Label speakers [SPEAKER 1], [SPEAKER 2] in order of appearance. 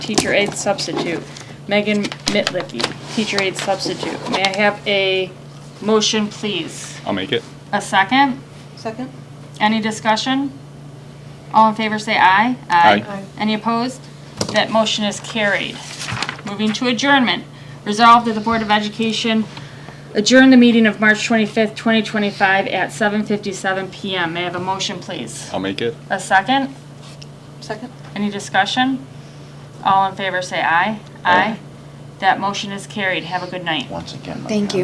[SPEAKER 1] teacher aide substitute. Megan Mitlicky, teacher aide substitute. May I have a motion, please?
[SPEAKER 2] I'll make it.
[SPEAKER 1] A second?
[SPEAKER 3] Second?
[SPEAKER 1] Any discussion? All in favor say aye.
[SPEAKER 2] Aye.
[SPEAKER 3] Aye.
[SPEAKER 1] Any opposed? That motion is carried. Moving to adjournment. Resolved that the Board of Education adjourn the meeting of March 25th, 2025 at 7:57 PM. May I have a motion, please?
[SPEAKER 2] I'll make it.
[SPEAKER 1] A second?
[SPEAKER 3] Second?
[SPEAKER 1] Any discussion? All in favor say aye.
[SPEAKER 2] Aye.
[SPEAKER 1] That motion is carried. Have a good night.
[SPEAKER 4] once again. my
[SPEAKER 5] Thank you.